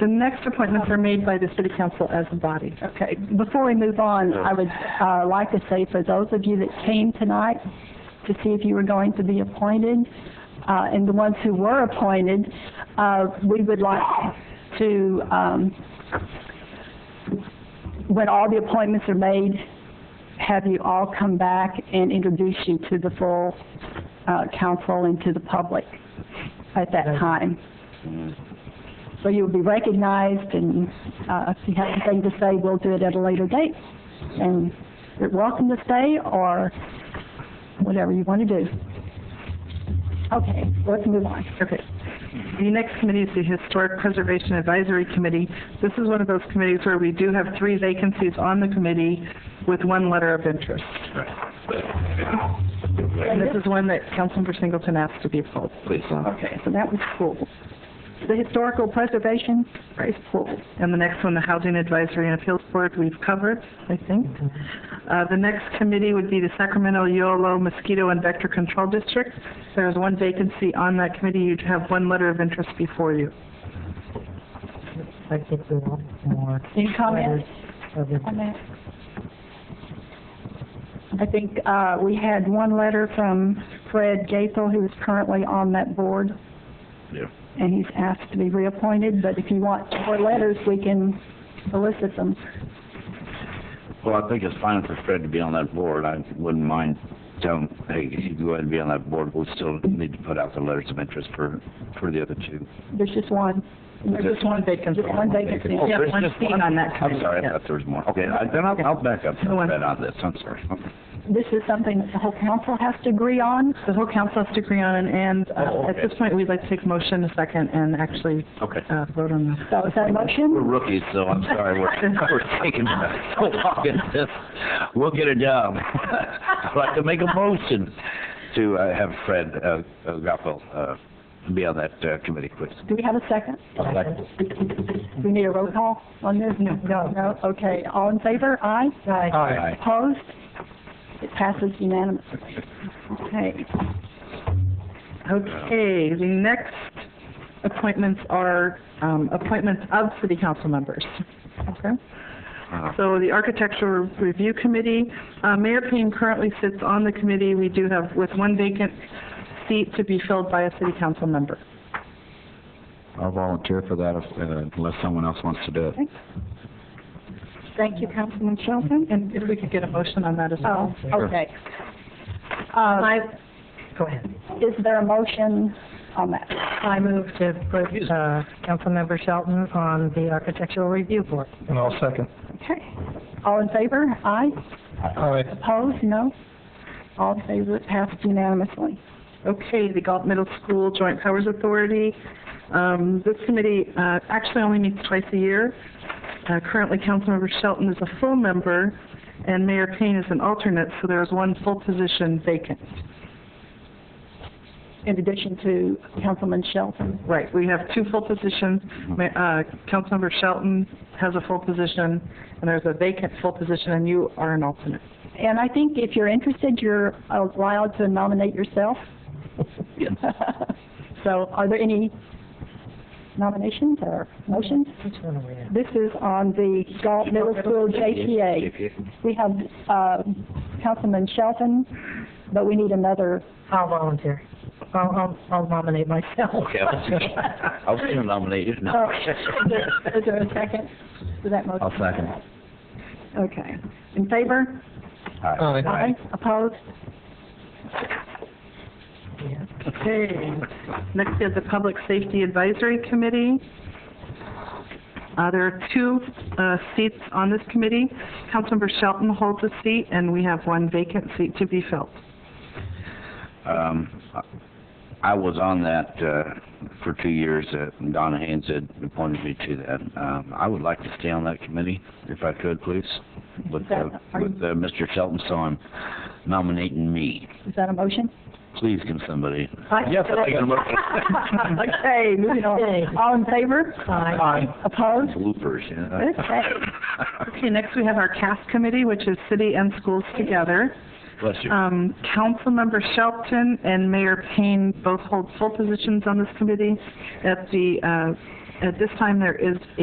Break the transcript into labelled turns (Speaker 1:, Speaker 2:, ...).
Speaker 1: The next appointments are made by the city council as a body.
Speaker 2: Okay, before we move on, I would, uh, like to say for those of you that came tonight to see if you were going to be appointed, uh, and the ones who were appointed, uh, we would like to, um, when all the appointments are made, have you all come back and introduce you to the full, uh, council and to the public at that time. So you'll be recognized, and uh, if you have anything to say, we'll do it at a later date. And you're welcome to stay, or whatever you want to do. Okay, let's move on.
Speaker 1: Okay. The next committee is the Historic Preservation Advisory Committee. This is one of those committees where we do have three vacancies on the committee with one letter of interest. And this is one that Councilmember Singleton asked to be filled.
Speaker 3: Please.
Speaker 2: Okay, so that was schools. The Historical Preservation is schools.
Speaker 1: And the next one, the Housing Advisory and Appeals Board, we've covered, I think. Uh, the next committee would be the Sacramento Yolo Mosquito and Vector Control District. There's one vacancy on that committee. You'd have one letter of interest before you.
Speaker 4: I think we want more
Speaker 2: Any comments?
Speaker 4: of it.
Speaker 2: Comments? I think uh, we had one letter from Fred Gaethel, who is currently on that board.
Speaker 3: Yeah.
Speaker 2: and he's asked to be reappointed, but if you want more letters, we can solicit them.
Speaker 3: Well, I think it's fine for Fred to be on that board. I wouldn't mind telling, hey, if you go ahead and be on that board, we still need to put out the letters of interest for, for the other two.
Speaker 2: There's just one.
Speaker 1: There's just one vacancy.
Speaker 2: Just one vacancy.
Speaker 3: Oh,
Speaker 2: Yeah,
Speaker 3: there's
Speaker 1: one
Speaker 3: just
Speaker 1: seat on that
Speaker 3: I'm
Speaker 1: committee,
Speaker 3: sorry,
Speaker 1: yeah.
Speaker 3: I thought there was more. Okay, I- then I'll, I'll back up
Speaker 1: No one-
Speaker 3: Fred on this, I'm sorry. Okay.
Speaker 2: This is something that the whole council has to agree on.
Speaker 1: The whole council has to agree on, it, and uh,
Speaker 3: Oh,
Speaker 1: at
Speaker 3: okay.
Speaker 1: this point, we'd like to take motion a second and actually
Speaker 3: Okay.
Speaker 1: uh, vote on this.
Speaker 2: So is that a
Speaker 3: We're
Speaker 2: motion?
Speaker 3: rookies, so I'm sorry, we're, we're taking so long at this. We'll get it done. I'd like to make a motion to uh, have Fred, uh, uh, Goffel, uh, be on that, uh, committee, please.
Speaker 2: Do we have a second?
Speaker 3: Second.
Speaker 2: Do we need a roll call on this? No. No, okay. All in favor? Aye?
Speaker 3: Aye.
Speaker 2: Opposed? It passes unanimously. Okay.
Speaker 1: Uh, Okay, the next appointments are um, appointments of city council members. Okay?
Speaker 3: Uh,
Speaker 1: So the Architectural Review Committee, uh, Mayor Payne currently sits on the committee. We do have, with one vacant seat to be filled by a city council member.
Speaker 3: I'll volunteer for that if, uh, unless someone else wants to do it.
Speaker 2: Thank you, Councilman Shelton.
Speaker 1: And if we could get a motion on that as well.
Speaker 2: Oh, okay. Uh,
Speaker 4: Go ahead.
Speaker 2: is there a motion on that?
Speaker 4: I move to put, uh, Councilmember Shelton on the Architectural Review Board.
Speaker 5: And I'll second.
Speaker 2: Okay. All in favor? Aye?
Speaker 5: Aye.
Speaker 2: Opposed? No? All in favor? It passed unanimously.
Speaker 1: Okay, the Galt Middle School Joint Powers Authority. Um, This committee uh, actually only meets twice a year. Uh, Currently, Councilmember Shelton is a full member, and Mayor Payne is an alternate, so there is one full position vacant.
Speaker 2: In addition to Councilman Shelton.
Speaker 1: Right, we have two full positions. Ma- uh, Councilmember Shelton has a full position, and there's a vacant full position, and you are an alternate.
Speaker 2: And I think if you're interested, you're allowed to nominate yourself.
Speaker 3: Yes.
Speaker 2: So are there any nominations or motions?
Speaker 4: Which one are we in?
Speaker 2: This is on the Galt Middle School JPA. We have, uh, Councilman Shelton, but we need another,
Speaker 4: I'll volunteer. I'll, I'll, I'll nominate myself.
Speaker 3: Okay, I'll, I'll still nominate you. No.
Speaker 2: oh, is there- is there a second to that motion?
Speaker 3: I'll second.
Speaker 2: Okay. In favor?
Speaker 3: Aye.
Speaker 2: Aye. Opposed?
Speaker 4: Yeah.
Speaker 1: Okay. Next is the Public Safety Advisory Committee. Uh, there are two, uh, seats on this committee. Councilmember Shelton holds a seat, and we have one vacant seat to be filled.
Speaker 3: Um, I was on that, uh, for two years, uh, Donna Haynes had appointed me to that. Um, I would like to stay on that committee, if I could, please, with, uh, with, uh, Mr. Shelton, so I'm nominating me.
Speaker 2: Is that a motion?
Speaker 3: Please, can somebody? Yes, I think I'm
Speaker 2: Okay, moving
Speaker 4: Okay.
Speaker 2: on. All in favor?
Speaker 4: Aye.
Speaker 2: Opposed?
Speaker 3: Bloopers,
Speaker 2: Okay.
Speaker 3: yeah.
Speaker 1: Okay, next we have our CAS Committee, which is City and Schools Together.
Speaker 3: Bless you.
Speaker 1: Um, Councilmember Shelton and Mayor Payne both hold full positions on this committee. At the, uh, At this time, there is